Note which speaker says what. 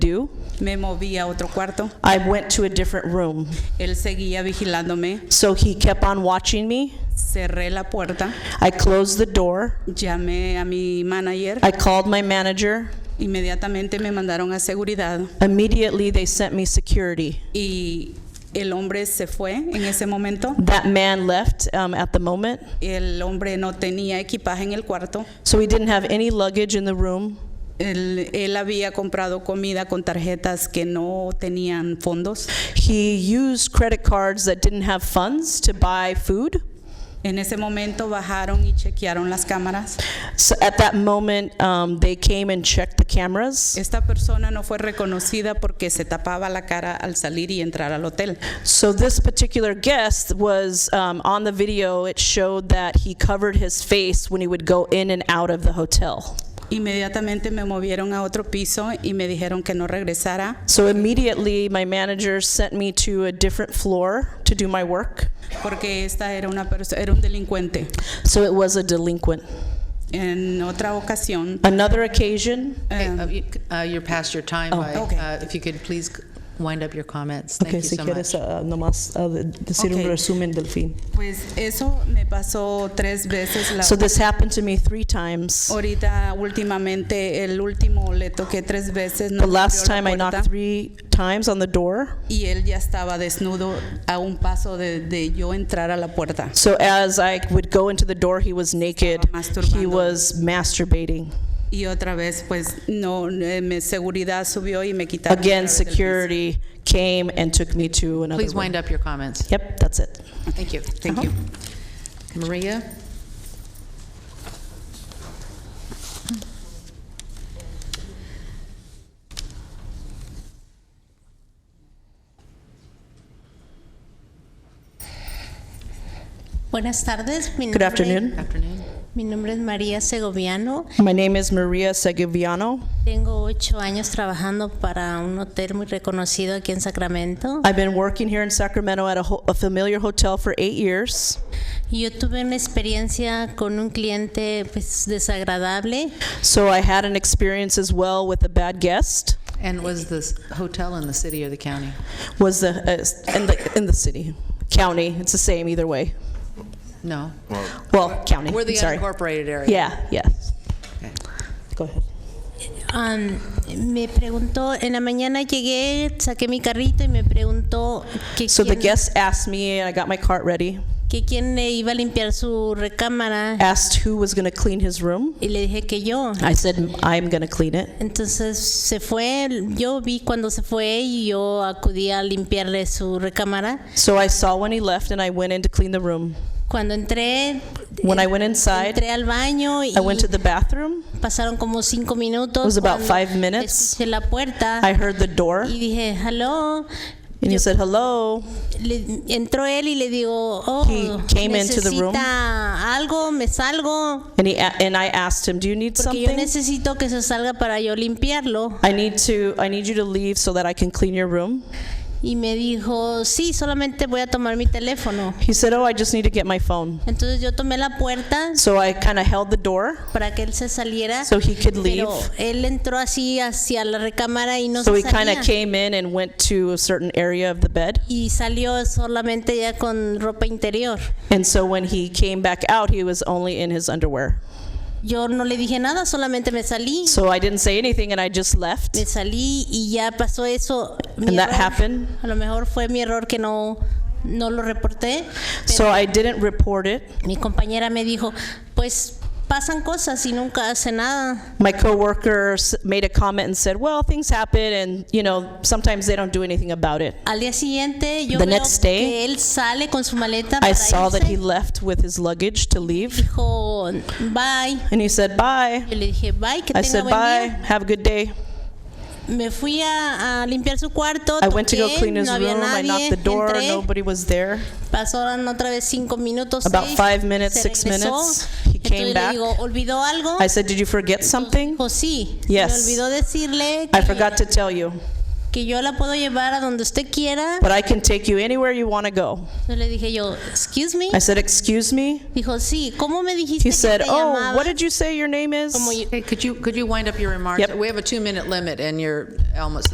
Speaker 1: Me moví a otro cuarto.
Speaker 2: I went to a different room.
Speaker 1: Él seguía vigilándome.
Speaker 2: So he kept on watching me.
Speaker 1: Cerré la puerta.
Speaker 2: I closed the door.
Speaker 1: Llamé a mi manager.
Speaker 2: I called my manager.
Speaker 1: Inmediatamente me mandaron a seguridad.
Speaker 2: Immediately, they sent me security.
Speaker 1: Y el hombre se fue en ese momento.
Speaker 2: That man left um, at the moment,
Speaker 1: El hombre no tenía equipaje en el cuarto.
Speaker 2: so he didn't have any luggage in the room.
Speaker 1: Él, él había comprado comida con tarjetas que no tenían fondos.
Speaker 2: He used credit cards that didn't have funds to buy food.
Speaker 1: En ese momento bajaron y chequearon las cámaras.
Speaker 2: So at that moment, um, they came and checked the cameras.
Speaker 1: Esta persona no fue reconocida porque se tapaba la cara al salir y entrar al hotel.
Speaker 2: So this particular guest was um, on the video. It showed that he covered his face when he would go in and out of the hotel.
Speaker 1: Inmediatamente me movieron a otro piso y me dijeron que no regresara
Speaker 2: So immediately, my manager sent me to a different floor to do my work.
Speaker 1: porque esta era una perso- era un delincuente.
Speaker 2: So it was a delinquent.
Speaker 1: En otra ocasión,
Speaker 2: Another occasion,
Speaker 3: Okay, uh, you c- uh, You're past your time,
Speaker 2: Oh,
Speaker 3: by,
Speaker 1: okay.
Speaker 3: uh, if you could please c- wind up your comments. Thank you
Speaker 4: si
Speaker 3: so
Speaker 4: quieres
Speaker 3: much.
Speaker 4: ah, nomás ah, de- decir
Speaker 1: Ok.
Speaker 4: un resumen del fin.
Speaker 1: pues eso me pasó tres veces. La
Speaker 2: so this happened to me three times.
Speaker 1: ahorita últimamente el último le toqué tres veces. No
Speaker 2: The last
Speaker 1: abrió la
Speaker 2: time I
Speaker 1: puerta
Speaker 2: knocked three times on the door.
Speaker 1: y él ya estaba desnudo a un paso de, de yo entrar a la puerta.
Speaker 2: So as I would go into the door, he was naked.
Speaker 1: Estaba
Speaker 2: He
Speaker 1: masturbando.
Speaker 2: was masturbating.
Speaker 1: Y otra vez, pues no, eh, me- seguridad subió y me quitaron. otra
Speaker 2: Again,
Speaker 1: vez del piso.
Speaker 2: security came and took me to another Uh-huh.
Speaker 3: Please
Speaker 2: room.
Speaker 3: wind up your comments.
Speaker 2: Yep, that's it.
Speaker 3: Thank you, thank you. Maria?
Speaker 5: Buenas tardes. Mi
Speaker 2: Good
Speaker 5: nombre-
Speaker 2: afternoon.
Speaker 3: Afternoon.
Speaker 5: Mi nombre es María Segoviano.
Speaker 2: My name is Maria Segoviano.
Speaker 5: Tengo ocho años trabajando para un hotel muy reconocido aquí en Sacramento.
Speaker 2: I've been working here in Sacramento at a, ho- a familiar hotel for eight years.
Speaker 5: Y yo tuve una experiencia con un cliente pues, desagradable.
Speaker 2: So I had an experience as well with a bad guest.
Speaker 3: And was this hotel in the city or the county?
Speaker 2: was the, uh, in the, in the city, county, it's the same either way.
Speaker 3: No?
Speaker 2: Well, county,
Speaker 3: We're the
Speaker 2: I'm sorry.
Speaker 3: unincorporated area.
Speaker 2: Yeah, yes.
Speaker 4: Go ahead.
Speaker 5: Am, me preguntó, en la mañana llegué, saqué mi carrito y me preguntó que,
Speaker 2: So the
Speaker 5: quién,
Speaker 2: guest asked me, and I got my cart ready,
Speaker 5: que quién le iba a limpiar su recámara.
Speaker 2: asked who was gonna clean his room.
Speaker 5: Y le dije que yo.
Speaker 2: I said, I'm gonna clean it.
Speaker 5: Entonces se fue, yo vi cuando se fue y yo acudí a limpiarle su recámara.
Speaker 2: So I saw when he left, and I went in to clean the room.
Speaker 5: Cuando entré, eh,
Speaker 2: When I went inside,
Speaker 5: entré al baño y
Speaker 2: I went to the bathroom,
Speaker 5: pasaron como cinco minutos.
Speaker 2: It was about
Speaker 5: cuando
Speaker 2: five minutes.
Speaker 5: Escuché la puerta
Speaker 2: I heard the door,
Speaker 5: y dije, hello.
Speaker 2: and he
Speaker 5: Yo-
Speaker 2: said, hello.
Speaker 5: le- entró él y le digo, oh,
Speaker 2: He came into the room.
Speaker 5: necesita algo, me salgo.
Speaker 2: And he, a- and I asked him, do you need
Speaker 5: Porque yo
Speaker 2: something?
Speaker 5: necesito que se salga para yo limpiarlo.
Speaker 2: I need to, I need you to leave so that I can clean your room.
Speaker 5: Y me dijo, sí, solamente voy a tomar mi teléfono.
Speaker 2: He said, oh, I just need to get my phone.
Speaker 5: Entonces yo tomé la puerta
Speaker 2: So I kind of held the door
Speaker 5: para que él se saliera.
Speaker 2: so he could leave.
Speaker 5: pero él entró así hacia la recámara y no
Speaker 2: So he
Speaker 5: se
Speaker 2: kind
Speaker 5: salía.
Speaker 2: of came in and went to a certain area of the bed.
Speaker 5: y salió solamente ya con ropa interior.
Speaker 2: And so when he came back out, he was only in his underwear.
Speaker 5: Yo no le dije nada, solamente me salí.
Speaker 2: So I didn't say anything and I just left.
Speaker 5: me salí y ya pasó eso. Mi
Speaker 2: And that
Speaker 5: error.
Speaker 2: happened.
Speaker 5: A lo mejor fue mi error que no, no lo reporté.
Speaker 2: So I didn't report it.
Speaker 5: Mi compañera me dijo, pues pasan cosas y nunca hace nada.
Speaker 2: My coworker s- made a comment and said, well, things happen and, you know, sometimes they don't do anything about it.
Speaker 5: Al día siguiente yo
Speaker 2: The
Speaker 5: veo
Speaker 2: next day,
Speaker 5: que él sale con su maleta
Speaker 2: I
Speaker 5: para
Speaker 2: saw that he
Speaker 5: irse.
Speaker 2: left with his luggage to leave
Speaker 5: dijo, bye.
Speaker 2: and he said, bye.
Speaker 5: Yo le dije, bye, que
Speaker 2: I
Speaker 5: tenga
Speaker 2: said,
Speaker 5: buen
Speaker 2: bye,
Speaker 5: día.
Speaker 2: have a good day.
Speaker 5: Me fui a, a limpiar su cuarto,
Speaker 2: I went to go
Speaker 5: toqué,
Speaker 2: clean his
Speaker 5: no había
Speaker 2: room. I
Speaker 5: nadie,
Speaker 2: knocked the door,
Speaker 5: entré,
Speaker 2: nobody was there.
Speaker 5: pasaron otra vez cinco minutos,
Speaker 2: About
Speaker 5: seis,
Speaker 2: five minutes,
Speaker 5: se
Speaker 2: six
Speaker 5: regresó.
Speaker 2: minutes, he
Speaker 5: Entonces
Speaker 2: came
Speaker 5: le
Speaker 2: back.
Speaker 5: digo, ¿olvidó algo?
Speaker 2: I said, Did you forget something?
Speaker 5: dijo, sí,
Speaker 2: Yes.
Speaker 5: me olvidó decirle
Speaker 2: I
Speaker 5: que,
Speaker 2: forgot to tell you,
Speaker 5: que yo la puedo llevar a donde usted quiera.
Speaker 2: but I can take you anywhere you want to go.
Speaker 5: Entonces le dije yo, excuse me.
Speaker 2: I said, Excuse me?
Speaker 5: Dijo, sí, ¿cómo me dijiste
Speaker 2: He
Speaker 5: que
Speaker 2: said,
Speaker 5: te
Speaker 2: Oh,
Speaker 5: llamabas?"
Speaker 2: what did you say your name is?
Speaker 5: Como yo-
Speaker 3: Hey, could you, could you wind up your remarks?
Speaker 2: Yep.
Speaker 3: We have a two-minute limit, and you're almost